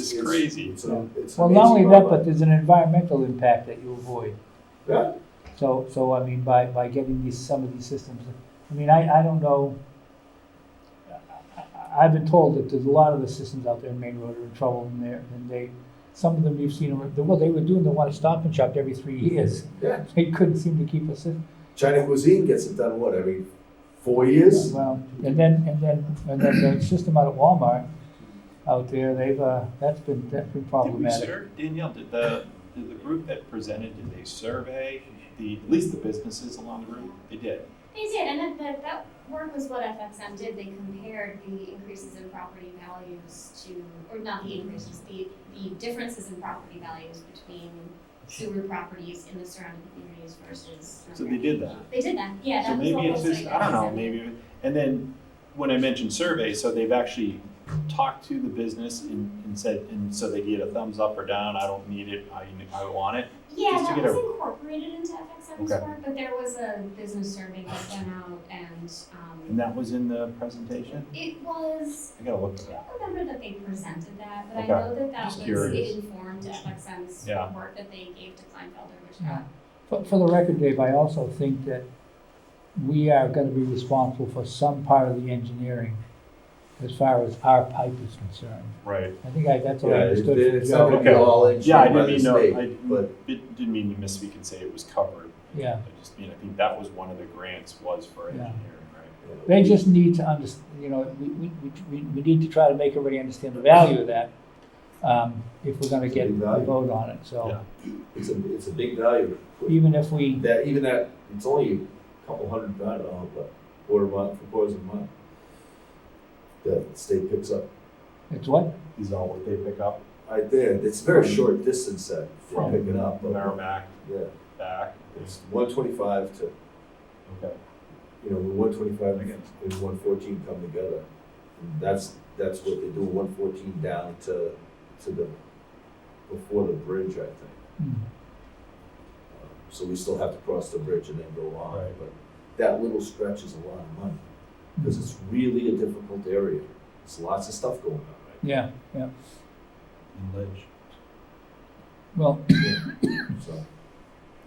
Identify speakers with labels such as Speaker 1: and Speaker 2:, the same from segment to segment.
Speaker 1: is crazy.
Speaker 2: It's a- it's an
Speaker 3: Well, not only
Speaker 2: amazing
Speaker 3: that,
Speaker 2: robot.
Speaker 3: but there's an environmental impact that you avoid.
Speaker 2: Yeah.
Speaker 3: So, so I mean, by, by getting these, some of these systems, I mean, I, I don't know. I- I- I've been told that there's a lot of the systems out there in Main Road are in trouble and they're, and they, some of them you've seen, are- well, they were doing the one at Stop and Shop every three years.
Speaker 2: Yeah.
Speaker 3: They couldn't seem to keep a system.
Speaker 2: China cuisine gets it done, what, every four years?
Speaker 3: Well, and then, and then, and then the system out at Walmart out there, they've, uh, that's been, that's been
Speaker 1: Did we
Speaker 3: problematic.
Speaker 1: serve, Danielle, did the, did the group that presented, did they survey the, at least the businesses along the route? They did.
Speaker 4: They did, and that, but that work was what FXM did, they compared the increases in property values to, or not the increases, the, the differences in property values between sewer properties in the surrounding communities versus.
Speaker 1: So they did that.
Speaker 4: They did that, yeah,
Speaker 1: So
Speaker 4: that was the
Speaker 1: maybe
Speaker 4: whole
Speaker 1: it's just,
Speaker 4: site
Speaker 1: I don't know,
Speaker 4: assessment.
Speaker 1: maybe, and then when I mentioned survey, so they've actually talked to the business and, and said, and so they get a thumbs up or down, I don't need it, I, I want it.
Speaker 4: Yeah,
Speaker 1: just to
Speaker 4: that
Speaker 1: get
Speaker 4: was
Speaker 1: a-
Speaker 4: incorporated into FXM's
Speaker 1: Okay.
Speaker 4: work, but there was a business survey that went out and,
Speaker 1: And
Speaker 4: um,
Speaker 1: that was in the presentation?
Speaker 4: it was,
Speaker 1: I gotta look at
Speaker 4: I
Speaker 1: that.
Speaker 4: don't remember that they presented that, but I
Speaker 1: Okay.
Speaker 4: know that that
Speaker 1: Just
Speaker 4: was,
Speaker 1: curious.
Speaker 4: it informed FXM's
Speaker 1: Yeah.
Speaker 4: work that they gave to Kleinfelder, which
Speaker 3: Yeah.
Speaker 4: got.
Speaker 3: For, for the record, Dave, I also think that we are gonna be responsible for some part of the engineering as far as our pipe is concerned.
Speaker 1: Right.
Speaker 3: I think I, that's what I
Speaker 2: Yeah, it-
Speaker 3: understood from
Speaker 2: it's not
Speaker 3: Joe.
Speaker 2: gonna be
Speaker 1: Okay.
Speaker 2: all
Speaker 1: Yeah, I
Speaker 2: engineered by
Speaker 1: didn't
Speaker 2: the
Speaker 1: mean, no,
Speaker 2: state,
Speaker 1: I
Speaker 2: but
Speaker 1: didn't didn't mean to misspeak and say it was covered.
Speaker 3: Yeah.
Speaker 1: I just mean, I think that was one of the grants was for
Speaker 3: Yeah.
Speaker 1: engineering,
Speaker 3: They just need to under, you know, we, we, we, we need to try to make everybody understand the value of that, um, if we're gonna get a
Speaker 2: Big value.
Speaker 3: vote on it, so.
Speaker 1: Yeah.
Speaker 2: it's a, it's a big value.
Speaker 3: Even if we,
Speaker 2: That, even that, it's only a couple hundred, I don't know, but quarter month, three quarters of a month. That the state picks up
Speaker 3: it's what?
Speaker 1: right? Is all what they pick up
Speaker 2: right there, it's a very short distance that from
Speaker 1: From
Speaker 2: picking up, but,
Speaker 1: Merrimack
Speaker 2: yeah,
Speaker 1: back.
Speaker 2: it's one twenty-five to,
Speaker 1: Okay.
Speaker 2: you know, one twenty-five and one fourteen come together. And that's, that's what they do, one fourteen down to, to the, before the bridge, I think. Um,
Speaker 3: Hmm.
Speaker 2: So we still have to cross the bridge and then go on,
Speaker 1: Right.
Speaker 2: but that little stretch is a lot of money. Because it's really a difficult area. There's lots of stuff going on, right?
Speaker 3: Yeah, yeah,
Speaker 1: And Lidge.
Speaker 3: well,
Speaker 2: So,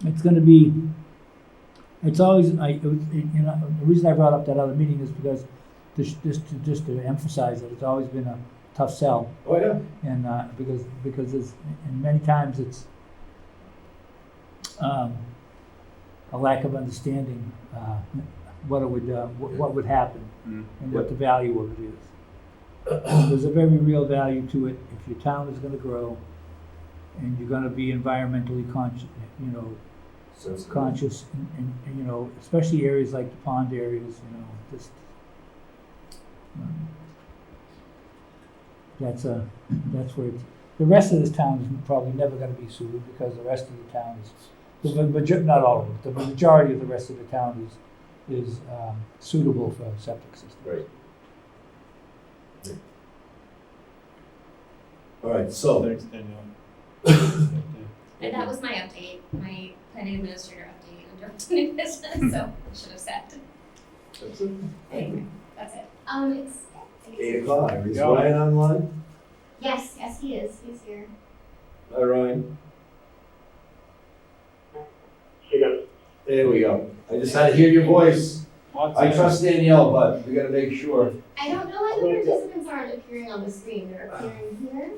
Speaker 3: it's gonna be, it's always, I, it was- you know, the reason I brought up that other meeting is because this, just to, just to emphasize that it's always been a tough sell.
Speaker 2: oh yeah,
Speaker 3: And, uh, because, because it's, and many times it's, um, a lack of understanding, uh, what it would, uh, what, what would happen
Speaker 1: Mm.
Speaker 3: and what the value of it is. There's a very real value to it if your town is gonna grow and you're gonna be environmentally conscious, you know,
Speaker 2: so it's
Speaker 3: conscious and, and, and, you know, especially areas like the pond areas, you know, just. um, That's a, that's where it's, the rest of this town is probably never gonna be sued because the rest of the town is, the major, not all of it, the majority of the rest of the town is, is, um, suitable for septic systems.
Speaker 2: Right. All right, so,
Speaker 1: Thanks, Danielle.
Speaker 4: And that was my update, my planning administrator update under new business, so I should have said.
Speaker 2: that's it.
Speaker 4: Anyway, that's it. Um, it's.
Speaker 2: Eight o'clock,
Speaker 1: we
Speaker 2: is
Speaker 1: go.
Speaker 2: Ryan online?
Speaker 4: Yes, yes, he is, he's here.
Speaker 2: Hi Ryan,
Speaker 5: She goes,
Speaker 2: there we go. I just had to hear your voice.
Speaker 1: Lots
Speaker 2: I
Speaker 1: of-
Speaker 2: trust Danielle, but we gotta make sure.
Speaker 4: I don't know why the participants aren't appearing on the screen, they're appearing here,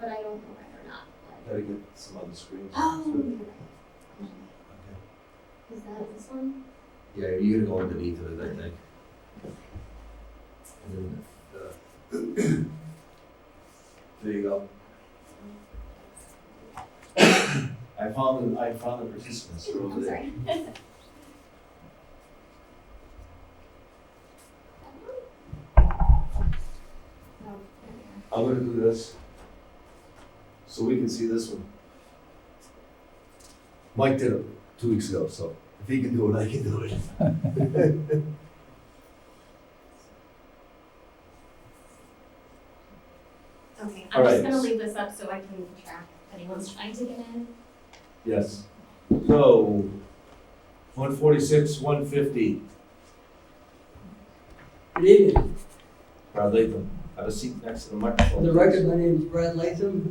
Speaker 4: but I don't know why they're not.
Speaker 2: Gotta get some other screens.
Speaker 4: Oh, you're right. Is that this one?
Speaker 2: Yeah, you're gonna go underneath it, I think. And then, uh, There you go. I found, the I found the participants are over
Speaker 4: I'm
Speaker 2: there.
Speaker 4: sorry.
Speaker 2: I'm gonna do this. So we can see this one. Mike did it two weeks ago, so if he can do it, I can do it.
Speaker 4: Okay,
Speaker 2: All
Speaker 4: I'm just
Speaker 2: right.
Speaker 4: gonna leave this up so I can track if anyone's trying to get in.
Speaker 2: Yes. So, one forty-six, one fifty.
Speaker 6: Good evening.
Speaker 2: Brad Latham, have a seat next to the
Speaker 6: For
Speaker 2: microphone.
Speaker 6: the
Speaker 2: please.
Speaker 6: record, my name is Brad Latham.